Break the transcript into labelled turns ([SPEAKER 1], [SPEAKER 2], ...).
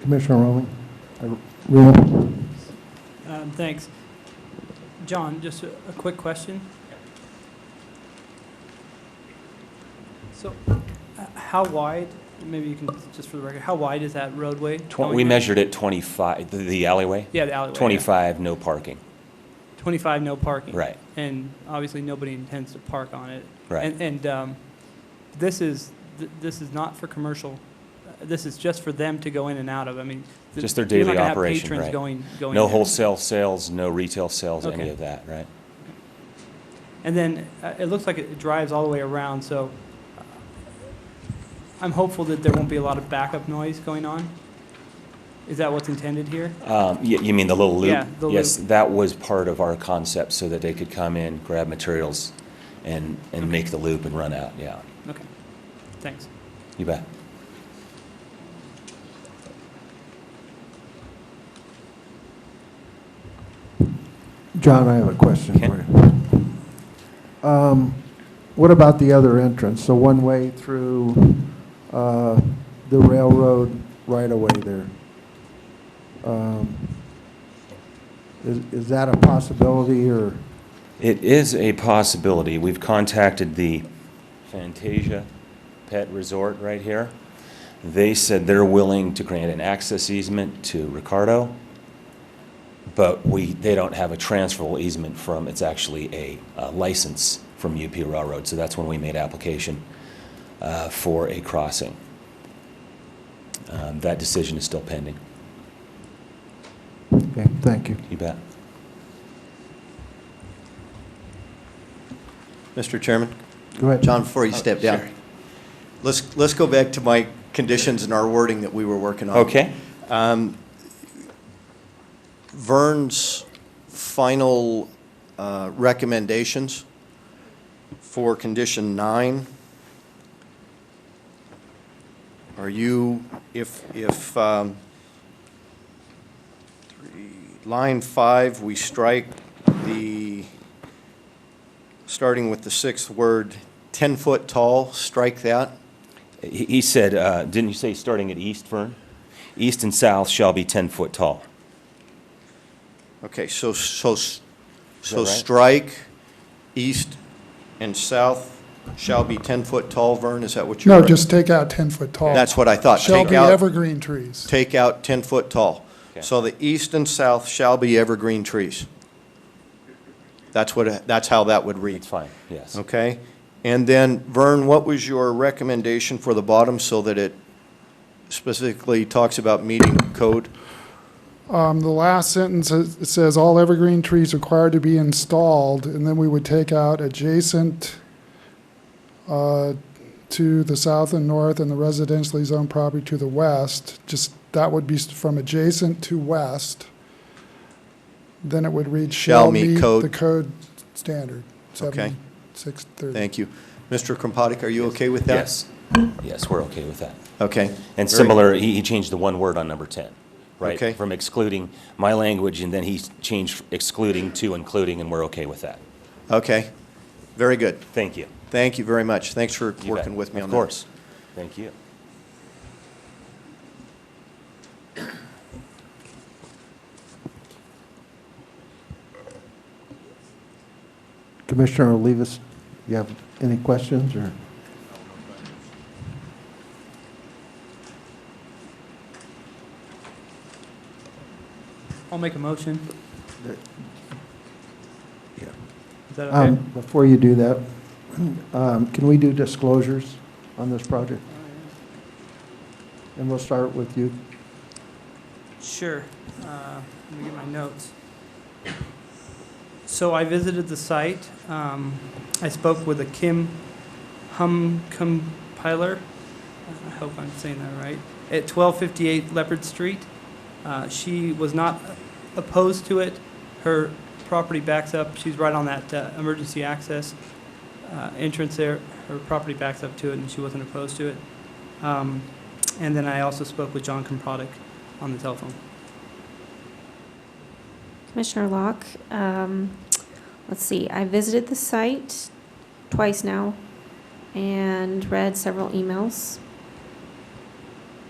[SPEAKER 1] Commissioner Roman? Uh, Reno?
[SPEAKER 2] Um, Thanks. John, just a a quick question. So h- how wide, maybe you can, just for the record, how wide is that roadway?
[SPEAKER 3] Tw-
[SPEAKER 2] going
[SPEAKER 3] We
[SPEAKER 2] in?
[SPEAKER 3] measured it 25, the- the alleyway,
[SPEAKER 2] Yeah, the alleyway. yeah.
[SPEAKER 3] 25, no parking.
[SPEAKER 2] 25, no parking.
[SPEAKER 3] Right,
[SPEAKER 2] And obviously, nobody intends to park on it.
[SPEAKER 3] right.
[SPEAKER 2] And, and um, this is, th- this is not for commercial, uh, this is just for them to go in and out of. I mean. th-
[SPEAKER 3] Just their
[SPEAKER 2] you're not
[SPEAKER 3] daily
[SPEAKER 2] gonna have
[SPEAKER 3] operation,
[SPEAKER 2] patrons
[SPEAKER 3] right.
[SPEAKER 2] going, going.
[SPEAKER 3] No
[SPEAKER 2] there.
[SPEAKER 3] wholesale sales, no retail sales, any
[SPEAKER 2] Okay.
[SPEAKER 3] of that, right?
[SPEAKER 2] And then uh, it looks like it drives all the way around, so uh, I'm hopeful that there won't be a lot of backup noise going on. Is that what's intended here?
[SPEAKER 3] Um, y- You mean the little loop?
[SPEAKER 2] Yeah, the
[SPEAKER 3] Yes, that was part of our concept, so that they could come in, grab materials, and, and make the loop and run out, yeah.
[SPEAKER 2] Okay, thanks.
[SPEAKER 3] You bet.
[SPEAKER 1] John, I have a question
[SPEAKER 3] Okay.
[SPEAKER 1] for you. Um, What about the other entrance, the one-way through uh, the railroad right-of-way there? Um, Is is that a possibility, or,
[SPEAKER 3] It is a possibility. We've contacted the Fantasia Pet Resort right here. They said they're willing to grant an access easement to Ricardo, but we, they don't have a transferable easement from, it's actually a uh, license from UP Railroad, so that's when we made application uh, for a crossing. Um, That decision is still pending.
[SPEAKER 1] okay, thank you.
[SPEAKER 3] You bet.
[SPEAKER 4] Mr. Chairman,
[SPEAKER 1] Go ahead.
[SPEAKER 4] John, before you step down, let's, let's go back to my conditions and our wording that we were working on.
[SPEAKER 3] Okay?
[SPEAKER 4] Vern's final uh, recommendations for condition nine. Are you, if, if, um, three- line five, we strike the, starting with the sixth word, 10-foot tall, strike that?
[SPEAKER 3] He he said, uh, didn't you say starting at east, Vern? East and south shall be 10 foot tall.
[SPEAKER 4] Okay, so, so, s-
[SPEAKER 3] that
[SPEAKER 4] so
[SPEAKER 3] right?
[SPEAKER 4] strike, east and south shall be 10-foot tall, Vern, is that what you're?
[SPEAKER 5] No, just take out 10-foot tall.
[SPEAKER 4] That's what I thought.
[SPEAKER 5] Shall
[SPEAKER 4] Take
[SPEAKER 5] be
[SPEAKER 4] out,
[SPEAKER 5] evergreen trees.
[SPEAKER 4] take out 10-foot tall.
[SPEAKER 3] Okay.
[SPEAKER 4] So the east and south shall be evergreen trees. That's what, that's how that would read,
[SPEAKER 3] It's fine, yes.
[SPEAKER 4] okay? And then, Vern, what was your recommendation for the bottom so that it specifically talks about meeting code?
[SPEAKER 5] Um, The last sentence is- it says, "All evergreen trees required to be installed," and then we would take out adjacent uh, to the south and north and the residentially zoned property to the west, just, that would be s- from adjacent to west. Then it would read,
[SPEAKER 4] Shall
[SPEAKER 5] "Shall
[SPEAKER 4] meet
[SPEAKER 5] meet
[SPEAKER 4] code."
[SPEAKER 5] the code standard."
[SPEAKER 4] Okay.
[SPEAKER 5] 7630.
[SPEAKER 4] Thank you. Mr. Krompotnik, are you okay with that?
[SPEAKER 3] Yes, yes, we're okay with that.
[SPEAKER 4] Okay.
[SPEAKER 3] And
[SPEAKER 4] Very-
[SPEAKER 3] similar, he he changed the one word on number 10, right?
[SPEAKER 4] Okay.
[SPEAKER 3] From excluding my language, and then he changed excluding to including, and we're okay with that.
[SPEAKER 4] Okay, very good.
[SPEAKER 3] Thank you.
[SPEAKER 4] Thank you very much. Thanks for
[SPEAKER 3] You bet.
[SPEAKER 4] working with me on
[SPEAKER 3] Of
[SPEAKER 4] that.
[SPEAKER 3] course. Thank you.
[SPEAKER 1] Commissioner Olivas, you have any questions, or?
[SPEAKER 2] I'll make a motion.
[SPEAKER 1] Yeah.
[SPEAKER 2] Is that okay?
[SPEAKER 1] Um, Before you do that, um, can we do disclosures on this project? And we'll start with you.
[SPEAKER 2] Sure. Uh, Let me get my notes. So I visited the site. Um, I spoke with a Kim Hum compiler. I hope I'm saying that right. At 1258 Leopard Street. Uh, She was not opposed to it. Her property backs up. She's right on that uh, emergency access uh, entrance there. Her property backs up to it, and she wasn't opposed to it. Um, And then I also spoke with John Comprodic on the telephone.
[SPEAKER 6] Commissioner Locke, um, let's see, I visited the site twice now and read several emails.